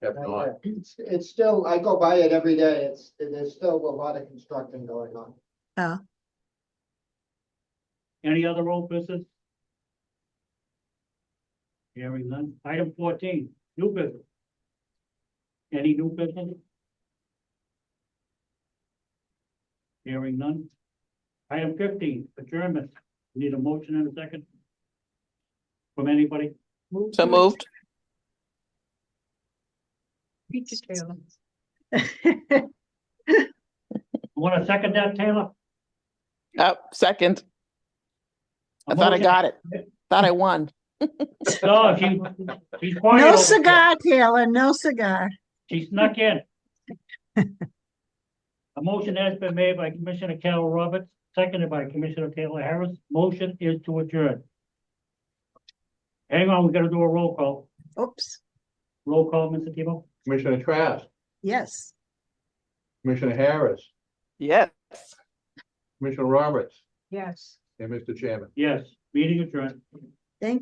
If not, It's, it's still, I go by it every day. It's, there's still a lot of construction going on. Any other old business? Hearing none. Item fourteen, new business. Any new business? Hearing none. Item fifteen, adjournment. Need a motion and a second? From anybody? So moved. Want to second that, Taylor? Oh, second. I thought I got it. Thought I won. No, she, she's quiet. No over there. cigar, Taylor, no cigar. She snuck in. A motion has been made by Commissioner Carol Roberts, seconded by Commissioner Taylor Harris. Motion is to adjourn. Hang on, we gotta do a roll call. Oops, Roll call, Mr. Tebow? Commissioner Trask, yes. Commissioner Harris, Yes. Commissioner Roberts, Yes. and Mr. Chairman. Yes, meeting adjourned.